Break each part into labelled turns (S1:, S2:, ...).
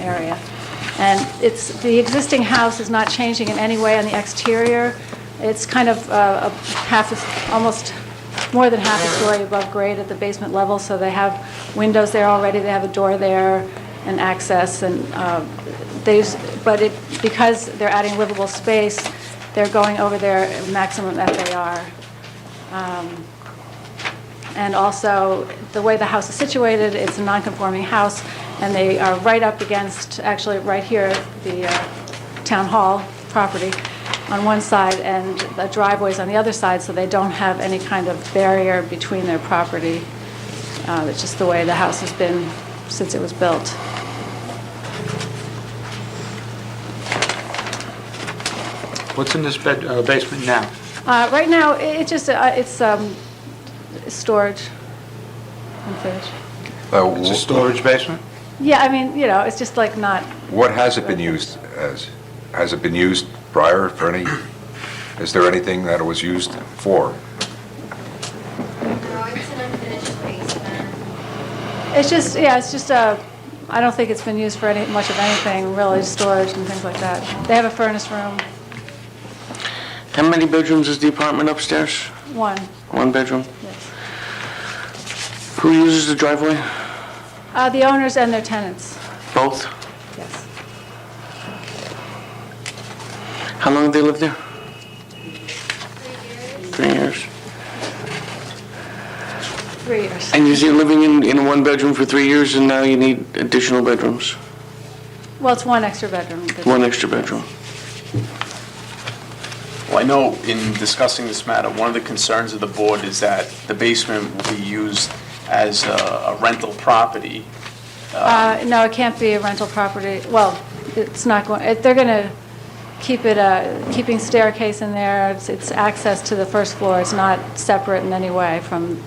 S1: area. And it's, the existing house is not changing in any way on the exterior. It's kind of uh, a half, a- almost more than half a story above grade at the basement level, so they have windows there already, they have a door there and access, and uh, there's, but it, because they're adding livable space, they're going over their maximum FAR. And also, the way the house is situated, it's a non-conforming house, and they are right up against, actually, right here, the uh, town hall property on one side, and the driveway's on the other side, so they don't have any kind of barrier between their property. Uh, It's just the way the house has been since it was built.
S2: What's in this bed, uh, basement now?
S1: Uh, Right now, i- it just, uh, it's um, storage and fish.
S3: Uh,
S2: It's a
S3: wh-
S2: storage basement?
S1: Yeah, I mean, you know, it's just like not,
S3: What has it been used as? Has it been used prior for any, is there anything that it was used for?
S4: No, it's an unfinished uh, basement.
S1: It's just, yeah, it's just I I don't think it's been used for any, much of anything, really, storage and things like that. They have a furnace room,
S5: How many bedrooms is the apartment upstairs?
S1: one,
S5: One bedroom.
S1: yes.
S5: Who uses the driveway?
S1: Uh, The owners and their tenants,
S5: Both?
S1: yes.
S5: How long have they lived there? Three years.
S1: Three years.
S5: And you're living in, in one bedroom for three years and now you need additional bedrooms?
S1: Well, it's one extra bedroom.
S5: One extra bedroom.
S6: Well, I know in discussing this matter, one of the concerns of the board is that the basement will be used as a a rental property.
S1: Uh, No, it can't be a rental property, well, it's not going, it- they're going to keep it, uh, keeping staircase in there, It's- it's access to the first floor, it's not separate in any way from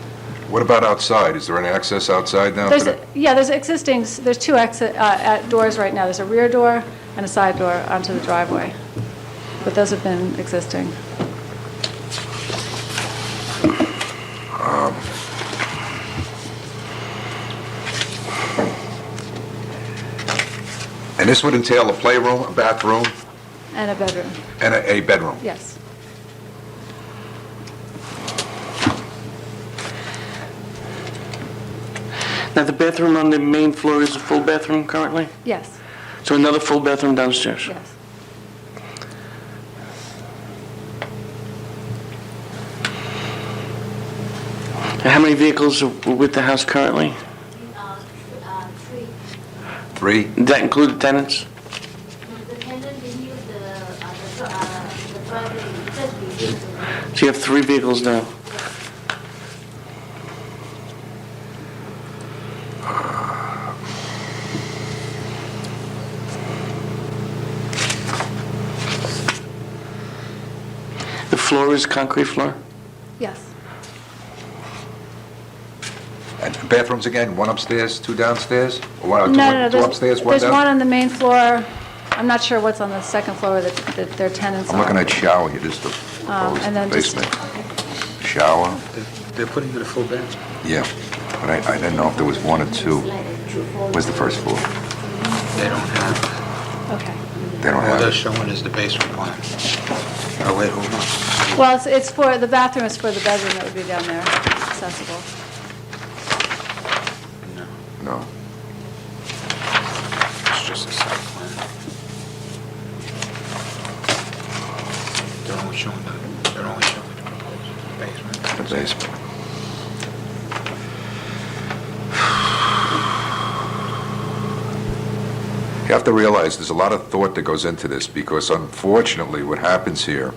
S3: What about outside? Is there any access outside now?
S1: There's,
S3: today?
S1: yeah, there's existing, s- there's two exit, uh, at doors right now. There's a rear door and a side door onto the driveway. But those have been existing.
S3: And this would entail a playroom, a bathroom,
S1: And a bedroom,
S3: and a a bedroom?
S1: yes.
S5: Now, the bathroom on the main floor is a full bathroom currently?
S1: Yes,
S5: So another full bathroom downstairs?
S1: yes.
S5: And how many vehicles are with the house currently?
S4: Uh, tr- uh, tree.
S3: Three?
S5: Does that include the tenants?
S4: The tenant didn't use the, uh, the, pro- uh, the property, just be used.
S5: So you have three vehicles now? The floor is concrete floor?
S1: Yes,
S3: And bathrooms again, one upstairs, two downstairs? Or
S1: No,
S3: one- two-
S1: no, no,
S3: Two
S1: there's-
S3: upstairs, one
S1: There's one
S3: down?
S1: on the main floor. I'm not sure what's on the second floor that that their tenants are.
S3: I'm looking at shower here, this is the
S1: Um, and then just-
S3: proposed basement. Shower,
S2: They're- They're putting it a full basement.
S3: yeah. But I I didn't know if there was one or two. Where's the first floor?
S2: They don't have,
S1: Okay.
S3: They don't
S2: all
S3: have
S2: they're
S3: it.
S2: showing is the basement plan. Oh, wait, hold on.
S1: Well, it's- it's for, the bathroom is for the bedroom that would be down there, accessible.
S2: No,
S3: No.
S2: it's just a site plan. They're only showing the, they're only showing the proposed basement.
S3: The basement. You have to realize, there's a lot of thought that goes into this, because unfortunately, what happens here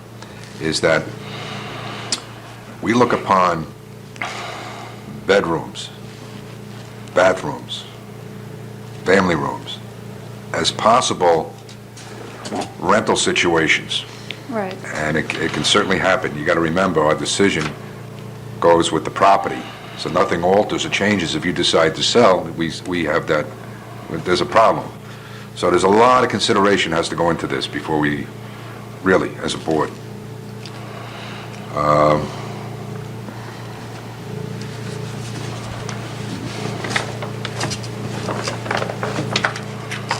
S3: is that we look upon bedrooms, bathrooms, family rooms, as possible rental situations.
S1: Right,
S3: And it it can certainly happen. You got to remember, our decision goes with the property, so nothing alters or changes. If you decide to sell, we we have that, there's a problem. So there's a lot of consideration has to go into this before we, really, as a board. Um,